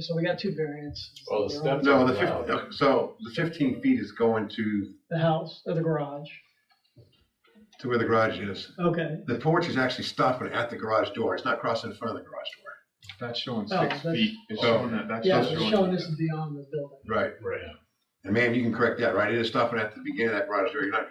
So we got two variants. Well, the steps- No, the fifteen, so the fifteen feet is going to, The house or the garage. to where the garage is. Okay. The porch is actually stopping at the garage door. It's not crossing in front of the garage door. That's showing Oh, six that's- feet. It's Oh. showing that, that's Yeah, just it's showing. showing this is beyond the building. Right. Right. And ma'am, you can correct that, right? It is stopping at the beginning of that garage door. You're not,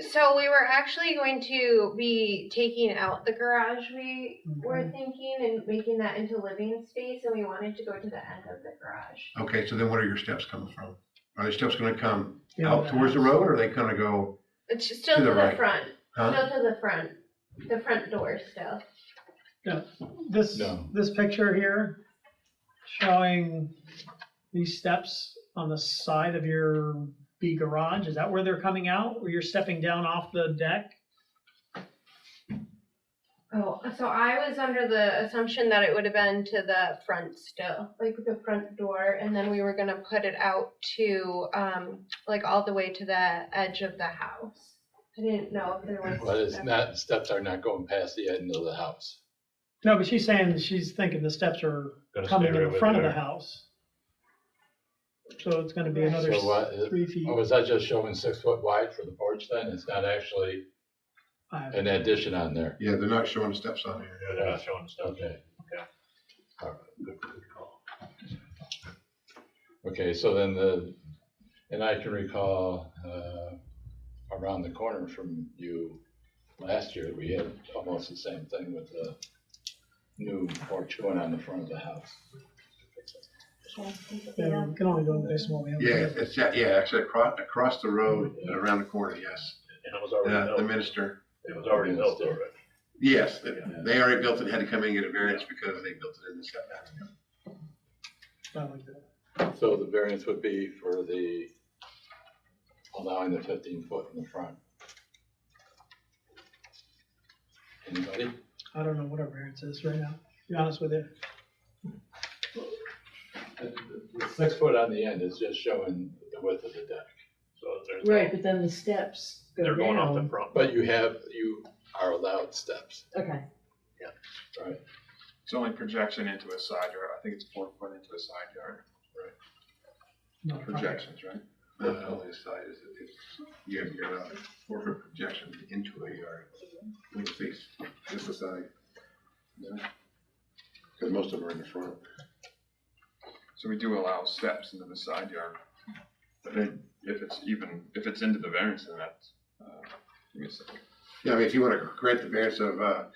So we were actually going to be taking out the garage we were Okay. Mm-hmm. thinking and making that into living space and we wanted to go to the end of the garage. okay, so then what are your steps coming from? Are the steps gonna come Yeah, out the towards the house. road or are they gonna go, It's just still To to the the right. Uh-huh. front, huh? still to the front, the front door still. This, No. this picture here showing these steps on the side of your B garage, is that where they're coming out? Where you're stepping down off the deck? Oh, so I was under the assumption that it would have been to the front still, like the front door, and then we were gonna put it out to, um, like all the way to the edge of the house. I didn't know if there was. But it's not, steps are not going past the end of the house. No, but she's saying, she's thinking the steps are coming in the front of the house. So it's gonna be another So s- what, is- three feet. oh, was that just showing six foot wide for the porch then? It's not actually I- an addition on there? Yeah, they're not showing the steps on here. Yeah, they're not uh, showing stuff. Okay. Yeah. All right, good- good call. Okay, so then the, and I can recall, uh, around the corner from you last year, we had almost the same thing with the new porch going on the front of the house. Yeah, we can only go based on what we have. Yeah, it's, yeah, yeah, actually across, across the road and around the corner, yes. Uh, And it was already The, the built, minister, it was already built already. yes, they- they already built it, had to come in and get a variance because they built it in the setback. I like that. So the variance would be for the, allowing the fifteen foot in the front. Anybody? I don't know what our variance is right now, to be honest with you. The- the- the Six foot on the end is just showing the width of the deck. So there's. no- Right, but then the steps go They're going off the down. front. But you have, you are allowed steps, Okay, right? It's only projection into a side yard. I think it's four foot into a side yard. Not a problem. Projections, right? Not only the side is, it's, you have your, uh, four foot projection into a yard. When you face, this is side. Cause most of them are in the front. So we do allow steps into the side yard. But then if it's even, if it's into the variance, then that's, uh, give me a second. Yeah, I mean, if you wanna grant the variance of, uh,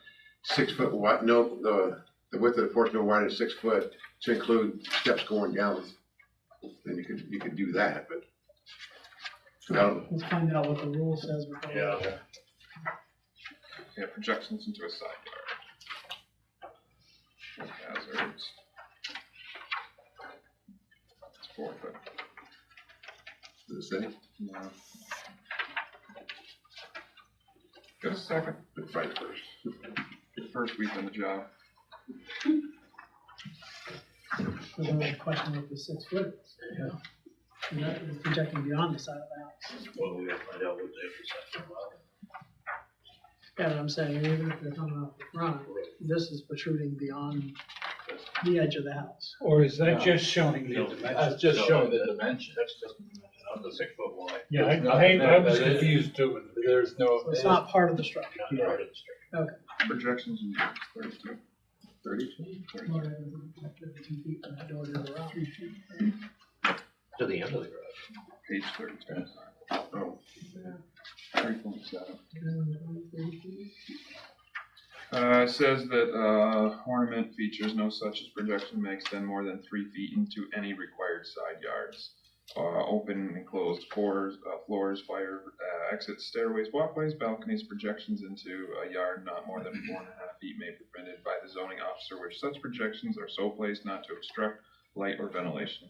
six foot wide, no, the, the width of the porch no wider than six foot to include steps going down, then you could, you could do that, but. No, Let's find out what the rule says. before we- Yeah. Yeah, projections into a side yard. Hazards. It's four foot. does it say? No. Got a second? Find it first. First week on the job. There's another question with the six foot. Yeah. And that is projecting beyond the side of the house. Well, we gotta find out what the intersection was. Yeah, but I'm saying, even if they're coming off the front, this is protruding beyond the edge of the house. Or is No. that just showing the No, dimensions? That's just showing the dimension. That's just, that's the six foot wide. Yeah, there's I- nothing I, I there was that is- confused too. with the- There's no, So it's not part of the structure. Not part of the street. Projections into thirty-two. Thirty-two? Thirty-two. More than fifty feet from the door to the garage. To the end of the road. Page thirty-two. Oh. Three point seven. Uh, it says that, uh, ornament features no such as projection makes them more than three feet into any required side yards. Uh, open and closed floors, uh, floors, fire, uh, exits, stairways, walkways, balconies, projections into a yard not more than four and a half feet may be prevented by the zoning officer where such projections are so placed not to obstruct light or ventilation.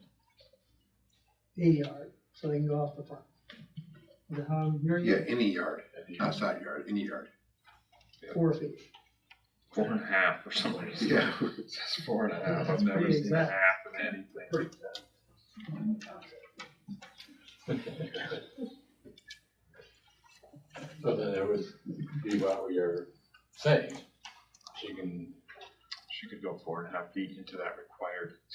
A yard, so they can go off the front. Is that how I'm hearing Yeah, it? any yard, not side yard, any yard. Four feet. Four and a half or something. Yeah. It says four and a half. That's I've never pretty seen a half exact. of anything. so then it would be what we are saying. She can She could go four and a half feet into that required